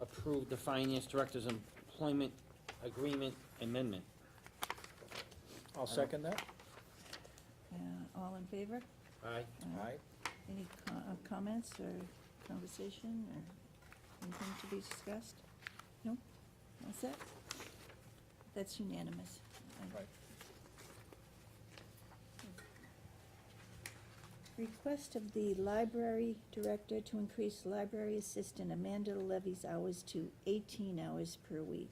approve the finance director's employment agreement amendment. I'll second that. Yeah, all in favor? Aye. Uh, Aye. Any co- uh, comments or conversation or anything to be discussed? No? That's it? That's unanimous. I- Right. Request of the library director to increase library assistant Amanda Levy's hours to eighteen hours per week.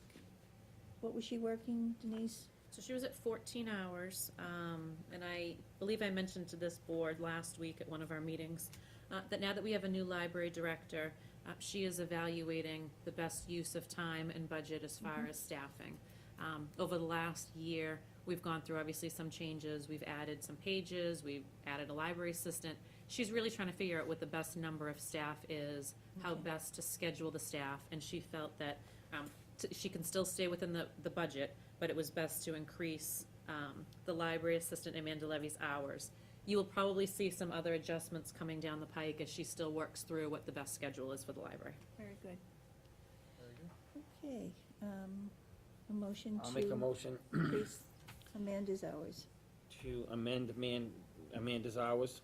What was she working, Denise? So she was at fourteen hours, um, and I believe I mentioned to this board last week at one of our meetings, uh, that now that we have a new library director, uh, she is evaluating the best use of time and budget as far as staffing. Um, over the last year, we've gone through obviously some changes, we've added some pages, we've added a library assistant. She's really trying to figure out what the best number of staff is, how Okay. best to schedule the staff, and she felt that, um, t- she can still stay within the, the budget, but it was best to increase um, the library assistant Amanda Levy's hours. You will probably see some other adjustments coming down the pike as she still works through what the best schedule is for the library. Very good. Very good. Okay, um, a motion to. I'll make a motion increase Amanda's hours. to amend man, Amanda's hours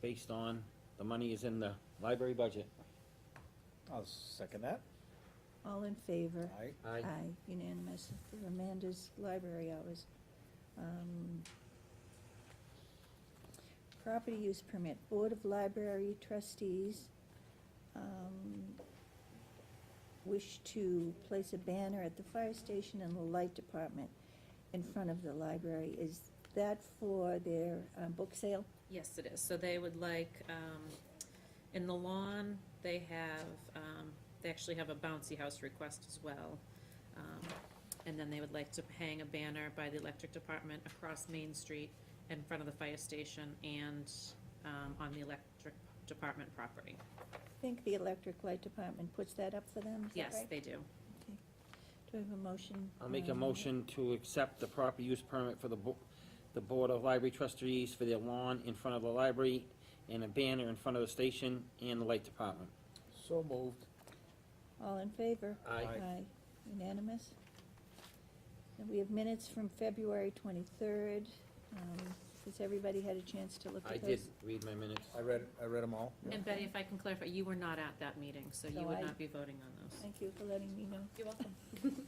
based on the money is in the library budget. I'll second that. All in favor? Aye. Aye. Aye, unanimous for Amanda's library hours. Um, Property use permit, Board of Library Trustees um, wish to place a banner at the fire station and the light department in front of the library. Is that for their uh, book sale? Yes, it is. So they would like, um, in the lawn, they have, um, they actually have a bouncy house request as well. Um, And then they would like to hang a banner by the electric department across Main Street in front of the fire station and um, on the electric department property. I think the electric light department puts that up for them, is that Yes, right? they do. Do I have a motion? I'll make a um, motion to accept the proper use permit for the bo- the Board of Library Trustees for their lawn in front of the library and a banner in front of the station and the light department. So moved. All in favor? Aye. Aye. Unanimous? And we have minutes from February twenty-third. Um, has everybody had a chance to look I at those? did read my minutes. I read, I read them all. And Betty, if I can clarify, you were not at that meeting, so So you would I- not be voting on those. Thank you for letting me know. You're welcome.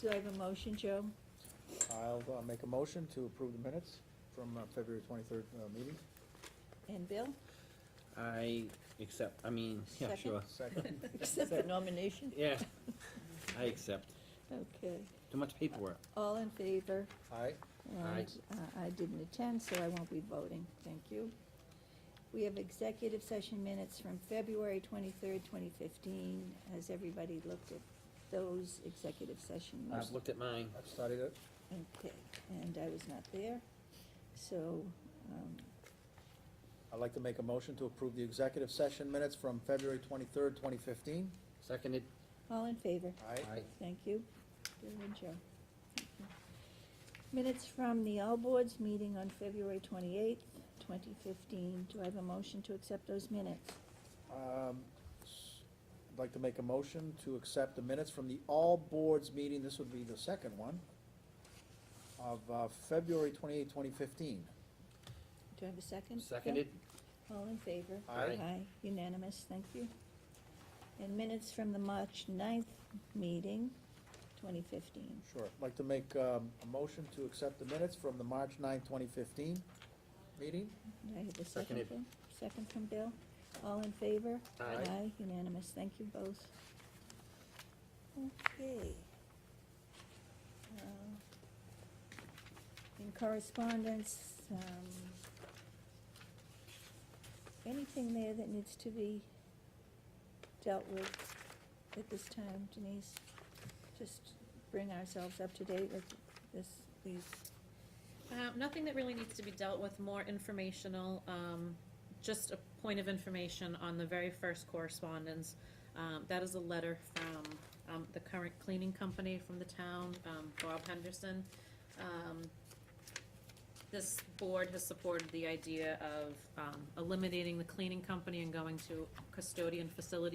Do I have a motion, Joe? I'll, uh make a motion to approve the minutes from uh, February twenty-third, uh, meeting. And Bill? I accept, I mean, yeah, Second. sure. Second. Accept the nomination? Yeah, I accept. Okay. Too much paperwork. All in favor? Aye. Aye. And uh, I didn't attend, so I won't be voting. Thank you. We have executive session minutes from February twenty-third, twenty fifteen. Has everybody looked at those executive session minutes? I've looked at mine. I've studied it. Okay, and I was not there, so, um, I'd like to make a motion to approve the executive session minutes from February twenty-third, twenty fifteen. Seconded? all in favor? Aye. Thank you. Bill and Joe. Thank you. Minutes from the All Boards meeting on February twenty-eighth, twenty fifteen. Do I have a motion to accept those minutes? Um, s- I'd like to make a motion to accept the minutes from the all boards meeting, this would be the second one, of uh, February twenty-eighth, twenty fifteen. Do I have a second? Bill? Seconded? All in favor? Aye. unanimous, thank you. And minutes from the March 9th meeting, twenty fifteen. Sure. I'd like to make um, a motion to accept the minutes from the March 9, 2015 meeting. Do I have a second? Seconded. Bill? Second from Bill. All in favor? Aye. unanimous. Thank you both. Okay. Uh, In correspondence, um, anything there that needs to be dealt with at this time, Denise? Just bring ourselves up to date with this, these, Uh, Nothing that really needs to be dealt with, more informational, um, just a point of information on the very first correspondence. Um, That is a letter from um, the current cleaning company from the town, um, Bob Henderson. Um, This board has supported the idea of um, eliminating the cleaning company and going to custodian facility